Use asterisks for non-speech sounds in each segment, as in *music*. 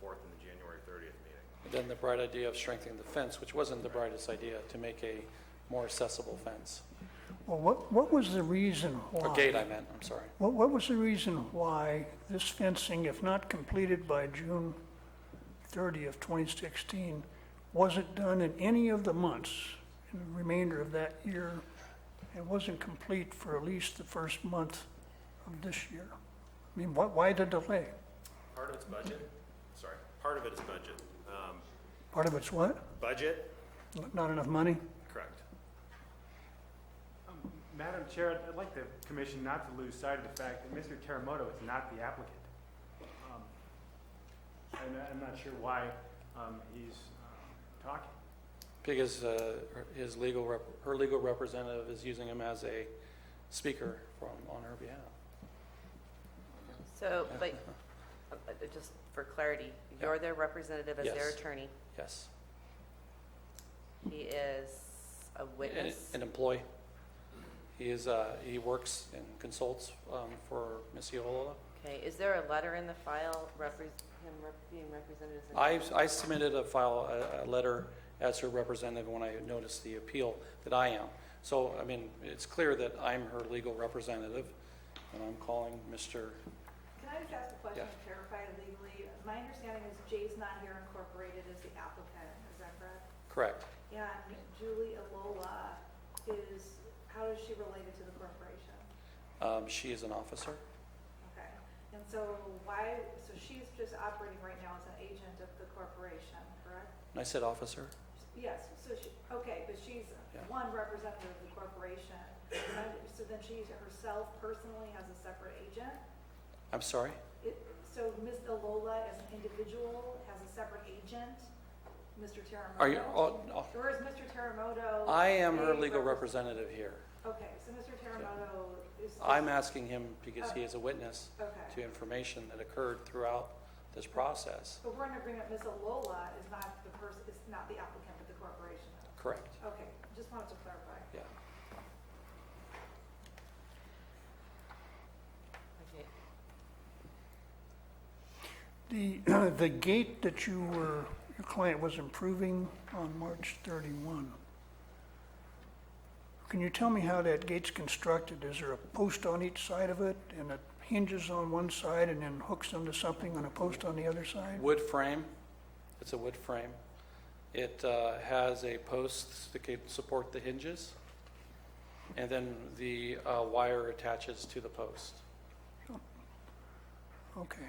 fourth and the January thirtieth meeting. Then the bright idea of strengthening the fence, which wasn't the brightest idea, to make a more accessible fence. Well, what, what was the reason Or why? gate, I meant, I'm sorry. What, what was the reason why this fencing, if not completed by June 30 of 2016, wasn't done in any of the months in the remainder of that year? and wasn't complete for at least the first month of this year? I mean, why, why the delay? Part of it's budget, sorry, part of it is budget. Um, Part of it's what? Budget, Not enough money? correct. Um, Madam Chair, I'd- I'd like the commission not to lose sight of the fact that Mr. Teramoto is not the applicant. Um, And I- I'm not sure why um, he's um, talking. Because uh, her- his legal, rep- her legal representative is using him as a speaker from, on her behalf. So, but, uh, uh, just for clarity, Yeah. you're their representative as their Yes. attorney. Yes. He is a witness. An employee. He is, uh, he works and consults um, for Ms. Iola. Okay, is there a letter in the file repres, him rep- being represented as an I I submitted a file, a- a letter as her representative when I noticed the appeal that I am. So, I mean, it's clear that I'm her legal representative, and I'm calling Mr., Can I just ask a question Yeah. to clarify legally? My understanding is Jay's Not Here Incorporated is the applicant, is that correct? correct, And Julie Alola is, how is she related to the corporation? Um, she is an officer. Okay. And so why, so she's just operating right now as an agent of the corporation, correct? And I said officer? Yes, so she, okay, but she's Yeah. one representative of the corporation. So then she herself personally has a separate agent? I'm sorry? It- So Ms. Alola as an individual has a separate agent, Mr. Teramoto? Are you, oh, no. Or is Mr. Teramoto? I am her a legal rep- representative here. Okay, so Mr. Teramoto is. I'm asking him because he is a witness to Okay, information that occurred throughout this process. but we're in agreement, Ms. Alola is not the person, is not the applicant, but the corporation. Correct, Okay, just wanted to clarify. yeah. Okay. The, *clears throat* the gate that you were, your client was improving on March 31. Can you tell me how that gate's constructed? Is there a post on each side of it and it hinges on one side and then hooks onto something on a post on the other side? Wood frame, it's a wood frame. It uh, has a post that can support the hinges, and then the uh, wire attaches to the post. Okay.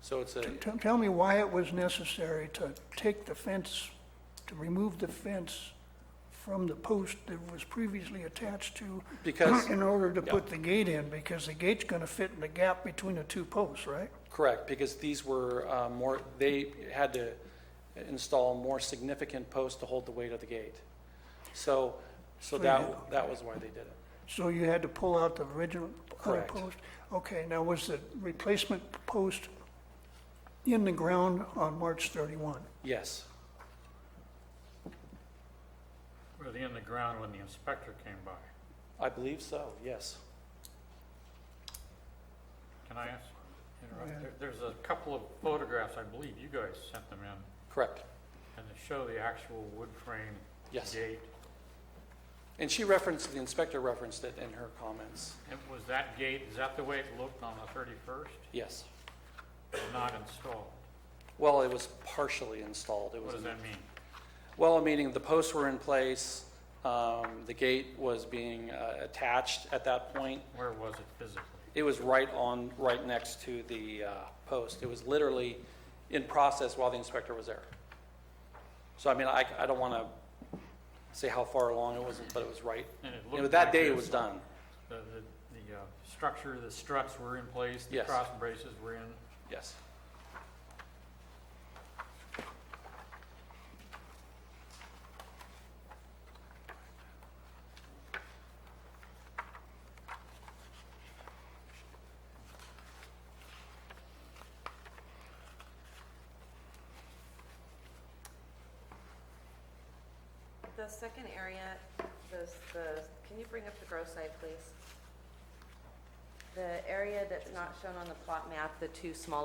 So it's a, T- t- Tell me why it was necessary to take the fence, to remove the fence from the post that was previously attached to because, in order to Yeah. put the gate in, because the gate's going to fit in the gap between the two posts, right? correct, because these were uh, more, they had to install more significant posts to hold the weight of the gate. So, so So that, that was why they did it. So you had to pull out the original other Correct. post? Okay, now was the replacement post in the ground on March 31? Yes, Were they in the ground when the inspector came by? I believe so, yes. Can I ask? interrupt? Yeah. There- There's a couple of photographs, I believe you guys sent them in, Correct, and they show the actual wood frame yes. gate. And she referenced, the inspector referenced it in her comments, And was that gate, is that the way it looked on the 31st? yes. Not installed? Well, it was partially installed. It What was, does that mean? well, meaning the posts were in place, um, the gate was being uh, attached at that point. Where was it physically? It was right on, right next to the uh, post. It was literally in process while the inspector was there. So I mean, I, I don't want to say how far along it was, but it was right. And it You know, looked that like day it this. was done. The, the- the uh, structure, the struts were in place, the Yes. cross braces were in. Yes. The second area, those, those, can you bring up the grow site, please? The area that's not shown on the plot map, the two small